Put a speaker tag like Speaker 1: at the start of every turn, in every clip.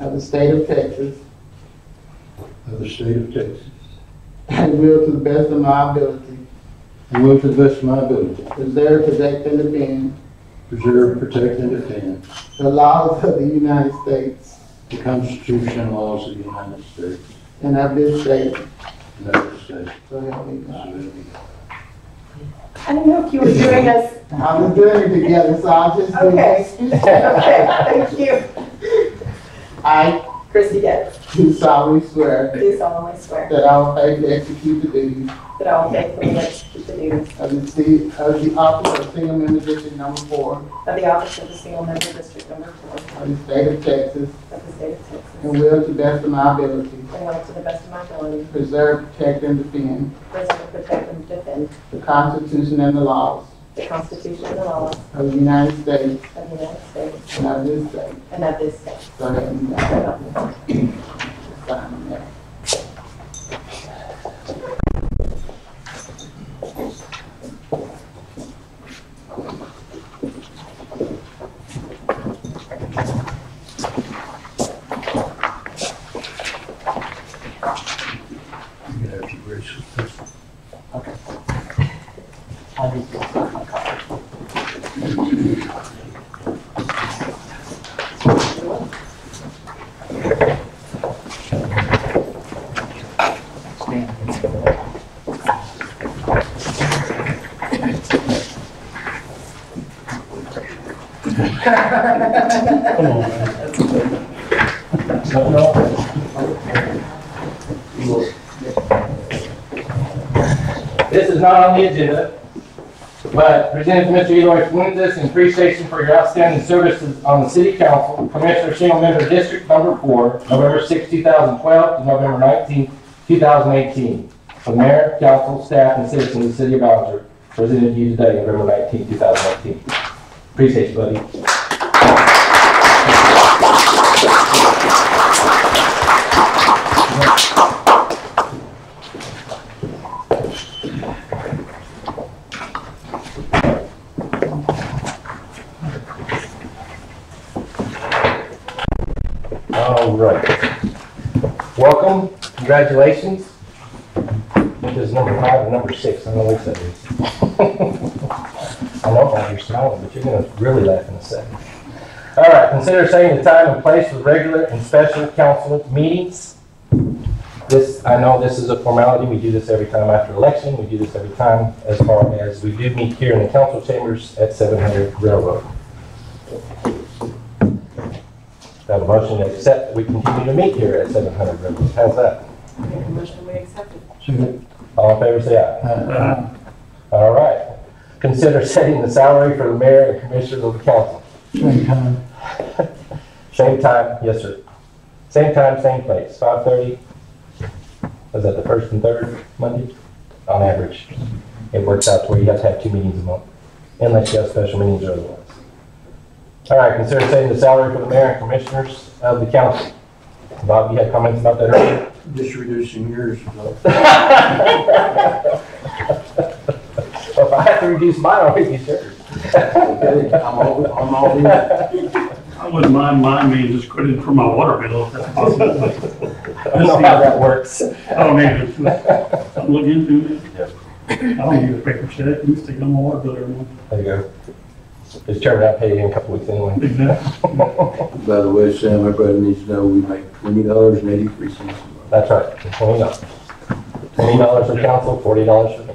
Speaker 1: of the state of Texas,
Speaker 2: of the state of Texas,
Speaker 1: and will to the best of my ability
Speaker 2: and will to the best of my ability
Speaker 1: preserve, protect, and defend
Speaker 2: preserve, protect, and defend
Speaker 1: the laws of the United States
Speaker 2: the Constitution and laws of the United States
Speaker 1: and of this state.
Speaker 2: and of this state.
Speaker 1: So help me
Speaker 2: So
Speaker 1: God.
Speaker 2: help me God.
Speaker 3: I didn't know if you were doing us,
Speaker 1: I was doing it together, so I just.
Speaker 3: okay, thank you.
Speaker 1: I
Speaker 3: Christy Getz,
Speaker 1: do solemnly swear
Speaker 3: do solemnly swear
Speaker 1: that I will faithfully execute the duties
Speaker 3: that I will faithfully execute the duties
Speaker 1: of the city, of the office of single member district number four
Speaker 3: of the office of the single member district number four
Speaker 1: of the state of Texas,
Speaker 3: of the state of Texas,
Speaker 1: and will to the best of my ability
Speaker 3: and will to the best of my ability
Speaker 1: preserve, protect, and defend
Speaker 3: preserve, protect, and defend
Speaker 1: the Constitution and the laws
Speaker 3: the Constitution and the laws
Speaker 1: of the United States
Speaker 3: of the United States
Speaker 1: and of this state.
Speaker 3: and of this state.
Speaker 1: So help me
Speaker 3: So
Speaker 1: God.
Speaker 3: help me God.
Speaker 1: Sign that.
Speaker 2: You can have your grace.
Speaker 4: This is not on the agenda, but presented to Mr. Eloy Fuentes in appreciation for your outstanding services on the city council, Commissioner Single Member District Number Four, November 6, 2012 to November 19, 2018. The mayor, council, staff, and citizens of the city of Ballinger presented to you today, November 19, 2018. Appreciate you, buddy. All right. Welcome, congratulations. This is number five and number six, I don't know which that is. I know why you're smiling, but you're gonna really laugh in a second. All right, consider setting the time and place for regular and special council meetings. This, I know this is a formality, we do this every time after election, we do this every time as far as, we do meet here in the council chambers at 700 Railroad. Got a motion to accept, that we continue to meet here at 700 Railroad, how's that?
Speaker 3: Make a motion, we accept it.
Speaker 2: Second.
Speaker 4: All in favor, say aye. All right. Consider setting the salary for the mayor and commissioners of the council.
Speaker 2: Same time.
Speaker 4: Same time, yes, sir. Same time, same place, 5:30. Was that the first and third Monday? On average, it works out to where you have to have two meetings a month, unless you have special meetings or otherwise. All right, consider setting the salary for the mayor and commissioners of the council. Bob, you had comments about that earlier?
Speaker 2: Just reducing yours. though.
Speaker 4: Well, if I have to reduce mine, I'll reduce yours.
Speaker 2: Okay, I'm all, I'm all in.
Speaker 5: I wouldn't mind mine being discredited for my water bill if that's possible.
Speaker 4: I don't know how that works.
Speaker 5: I don't need it. I'm looking into it. I don't need a paper check. I'm sticking on my water bill every month.
Speaker 4: There you go. Just turn it out, pay you in a couple weeks anyway.
Speaker 5: Exactly.
Speaker 2: By the way, Sam, my brother needs to know we make twenty dollars and eighty-three cents a month.
Speaker 4: That's right, twenty dollars. Twenty dollars for council, forty dollars for me.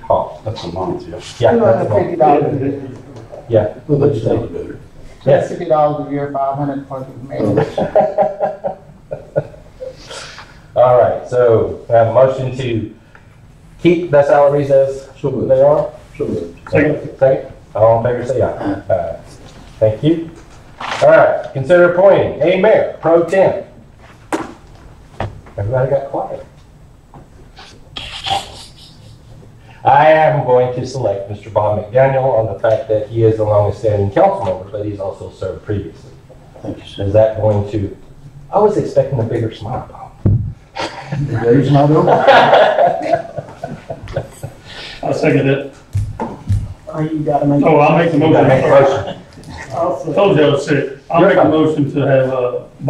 Speaker 4: Yeehaw. That's a month, yeah. Yeah,
Speaker 1: Two
Speaker 4: that's
Speaker 1: hundred
Speaker 4: a month.
Speaker 1: fifty dollars a year.
Speaker 4: Yeah.
Speaker 2: Well, that's not better.
Speaker 4: Yes.
Speaker 1: Fifty dollars a year, five hundred for the
Speaker 2: Oh,
Speaker 1: mayor.
Speaker 4: All right, so I have a motion to keep the salaries as
Speaker 2: So
Speaker 4: they
Speaker 2: moved,
Speaker 4: are.
Speaker 2: so moved.
Speaker 5: Second.
Speaker 4: Second, all in favor, say aye. Aye. Thank you. All right, consider appointing a mayor pro temp. Everybody got quiet. I am going to select Mr. Bob McDaniel on the fact that he is a longest-standing council member, but he's also served previously.
Speaker 2: Thank you, Sam.
Speaker 4: Is that going to, I was expecting a bigger smile, Bob.
Speaker 2: The day's not over.
Speaker 5: I second it.
Speaker 1: Oh, you gotta make.
Speaker 5: Oh, I'll make the
Speaker 4: You gotta make a
Speaker 5: motion.
Speaker 4: motion.
Speaker 5: Told you I was sick. I'll make a motion to have, uh,